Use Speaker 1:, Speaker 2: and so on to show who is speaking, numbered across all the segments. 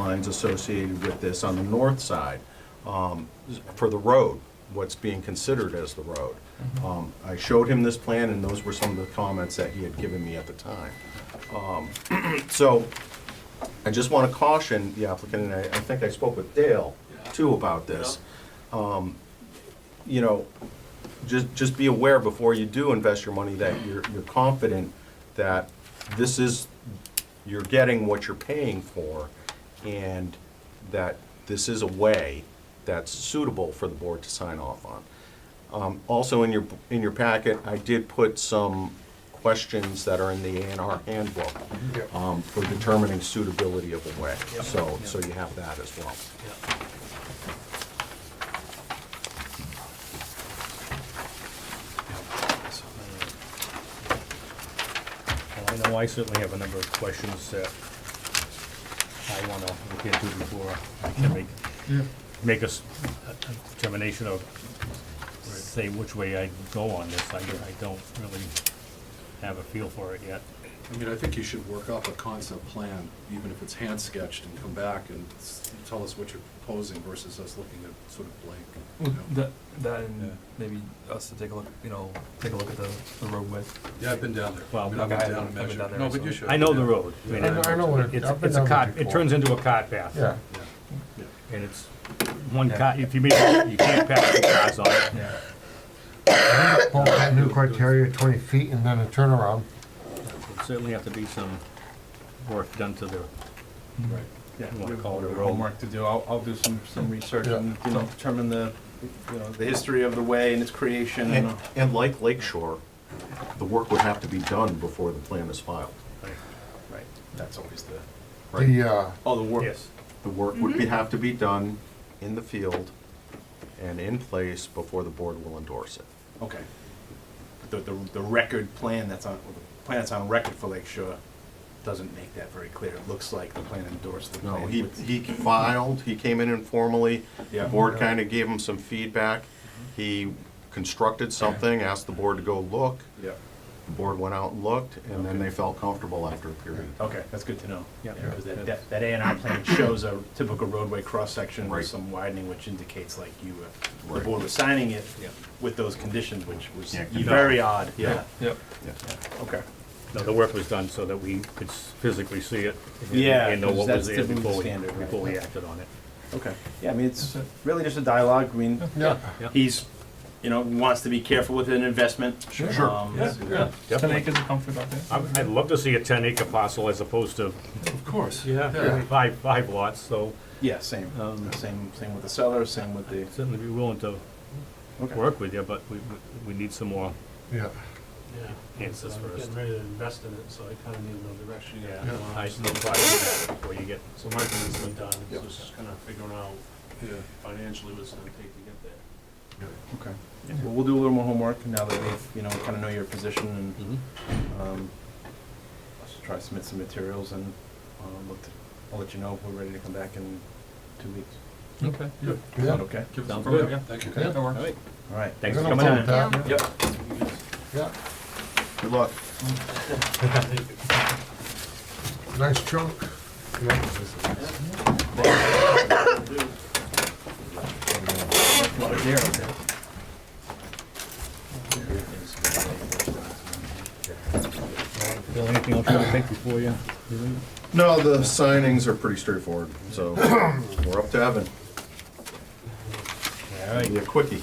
Speaker 1: lines associated with this on the north side um, for the road, what's being considered as the road. Um, I showed him this plan, and those were some of the comments that he had given me at the time. Um, So I just want to caution the applicant, and I I think I spoke with Dale, too, about this. Um, You know, just, just be aware before you do invest your money that you're, you're confident that this is, you're getting what you're paying for, and that this is a way that's suitable for the board to sign off on. Um, Also, in your, in your packet, I did put some questions that are in the A and R handbook
Speaker 2: Mm-hmm.
Speaker 1: um, for determining suitability of a way, so, so you have that as well.
Speaker 3: Well, I know I certainly have a number of questions that I want to look into before I can make, make a s- a- a determination of, say which way I go on this. I I don't really have a feel for it yet.
Speaker 4: I mean, I think you should work up a concept plan, even if it's hand-sketched, and come back and s- tell us what you're proposing versus us looking at sort of blank. you
Speaker 2: Well,
Speaker 4: know?
Speaker 2: That, that
Speaker 4: Yeah.
Speaker 2: and maybe us to take a look, you know, take a look at the, the road width.
Speaker 4: Yeah, I've been down there.
Speaker 3: Well,
Speaker 4: I mean, I've been
Speaker 2: okay, I
Speaker 4: down
Speaker 2: haven't-
Speaker 4: and
Speaker 2: I've been down
Speaker 4: measured.
Speaker 2: there
Speaker 4: No, but you
Speaker 2: myself.
Speaker 4: should.
Speaker 3: I know the
Speaker 4: yeah.
Speaker 3: road. I mean,
Speaker 5: I know, I know what it-
Speaker 3: It's,
Speaker 5: I've been
Speaker 3: it's a
Speaker 5: down
Speaker 3: cart,
Speaker 5: there
Speaker 3: it
Speaker 5: before.
Speaker 3: turns into a cart path.
Speaker 5: Yeah,
Speaker 4: Yeah, yeah.
Speaker 3: And it's one cart, if you make, you can't pass two cars on it.
Speaker 2: Yeah.
Speaker 5: Well, that new criteria, twenty feet and then a turnaround.
Speaker 3: There'd Certainly have to be some work done to the,
Speaker 4: Right.
Speaker 3: you
Speaker 6: Yeah,
Speaker 3: wanna
Speaker 6: we
Speaker 3: call it a
Speaker 6: have
Speaker 3: road.
Speaker 6: homework to do. I'll, I'll do some, some research
Speaker 5: Yeah.
Speaker 6: and, you know, determine the, you know, the history of the way and its creation and.
Speaker 1: And, and like Lake Shore, the work would have to be done before the plan is filed.
Speaker 6: Right,
Speaker 4: That's always the,
Speaker 1: Right.
Speaker 5: The, uh,
Speaker 6: oh, the work.
Speaker 3: Yes.
Speaker 1: The work would be, have to be done in the field and in place before the board will endorse it.
Speaker 6: Okay. The, the, the record plan that's on, well, the plan that's on record for Lake Shore doesn't make that very clear. It looks like the plan endorsed the
Speaker 1: No,
Speaker 6: plan.
Speaker 1: he,
Speaker 6: with-
Speaker 1: he filed, he came in informally, the
Speaker 6: Yeah.
Speaker 1: board kind of gave him some feedback. He constructed something, asked the board to go look,
Speaker 6: Yeah,
Speaker 1: the board went out and looked, and then they felt comfortable after a period.
Speaker 6: okay, that's good to know.
Speaker 3: Yeah.
Speaker 6: Because that, that- that A and R plan shows a typical roadway cross-section
Speaker 1: Right.
Speaker 6: with some widening, which indicates like you, were- the
Speaker 1: Right.
Speaker 6: board was signing it with those conditions, which was
Speaker 1: Yeah,
Speaker 6: very odd, yeah.
Speaker 2: Yep.
Speaker 1: Yeah.
Speaker 6: Okay.
Speaker 3: No, the work was done so that we could s- physically see it. and-
Speaker 6: Yeah,
Speaker 3: And know
Speaker 6: 'cause
Speaker 3: what
Speaker 6: that's
Speaker 3: was there
Speaker 6: typically the
Speaker 3: before we,
Speaker 6: standard, right.
Speaker 3: before we acted on it.
Speaker 6: Okay. Yeah, I mean, it's really just a dialogue. I mean,
Speaker 5: yeah,
Speaker 6: he's, you know, wants to be careful with an investment.
Speaker 2: Sure.
Speaker 6: Um,
Speaker 2: Yeah, yeah. Ten
Speaker 3: Definitely.
Speaker 2: acres of comfort out there.
Speaker 3: I would- I'd love to see a ten acre parcel as opposed to
Speaker 4: of course.
Speaker 3: uh, five, five lots, so
Speaker 6: Yeah, same,
Speaker 3: Um,
Speaker 6: same, same with the seller, same with the,
Speaker 3: certainly be willing to
Speaker 6: Okay.
Speaker 3: work with you, but we, we need some more
Speaker 5: yeah.
Speaker 3: answers
Speaker 7: I'm
Speaker 3: first.
Speaker 7: getting ready to invest in it, so I kind of need to know the direction you guys
Speaker 4: Yeah.
Speaker 3: I
Speaker 7: want.
Speaker 3: just know probably before you get,
Speaker 7: So my thing's been done,
Speaker 4: Yep.
Speaker 7: so it's just kind of figuring out
Speaker 4: Yeah.
Speaker 7: financially what it's going to take to get there.
Speaker 6: okay. Well, we'll do a little more homework now that we've, you know, kind of know your position and, um, let's try to submit some materials and, um, look to- I'll let you know if we're ready to come back in two weeks.
Speaker 2: Okay.
Speaker 6: Is that okay?
Speaker 4: Give us a
Speaker 3: Sounds
Speaker 4: program,
Speaker 3: good.
Speaker 4: yeah, thank you.
Speaker 5: Yeah.
Speaker 4: That works.
Speaker 3: all right,
Speaker 6: All right.
Speaker 3: thanks
Speaker 5: We're
Speaker 3: for
Speaker 5: gonna
Speaker 3: coming
Speaker 5: vote
Speaker 3: in.
Speaker 5: that,
Speaker 8: Yeah.
Speaker 6: Yep.
Speaker 5: Yeah,
Speaker 1: Good luck.
Speaker 5: nice chunk. Yeah.
Speaker 3: Bill, anything else you want to think before you?
Speaker 1: No, the signings are pretty straightforward, so we're up to Evan.
Speaker 3: All right.
Speaker 1: Be a quickie.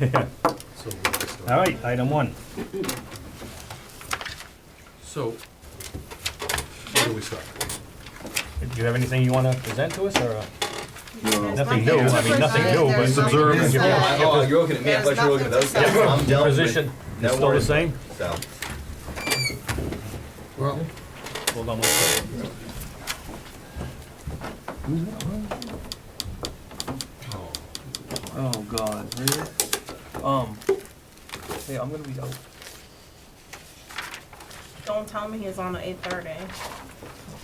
Speaker 3: All right, item one.
Speaker 4: So, where do we start?
Speaker 3: Do you have anything you want to present to us, or? uh, Nothing
Speaker 8: Nothing
Speaker 3: new,
Speaker 8: new,
Speaker 3: I mean, nothing new, but it's
Speaker 8: observing.
Speaker 9: Oh, you're looking at me, I thought you were looking at us. I'm dealt with.
Speaker 3: Position,
Speaker 9: No
Speaker 3: is still the
Speaker 9: worries.
Speaker 3: same?
Speaker 9: So,
Speaker 5: Well,
Speaker 3: Hold on one second.
Speaker 2: Oh, God, really? Um, yeah, I'm gonna be out.
Speaker 8: Don't tell me he's on at eight thirty.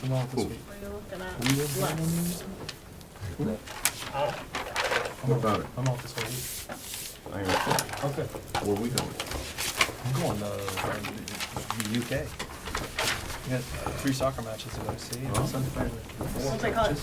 Speaker 2: I'm out this week.
Speaker 8: What are you looking at? Left.
Speaker 1: What about it?
Speaker 2: I'm out this whole week.
Speaker 1: I am-
Speaker 2: Okay.
Speaker 1: Where we going?
Speaker 2: I'm going uh, to the UK. We got three soccer matches to go see. and Sunday night.
Speaker 8: Don't they call it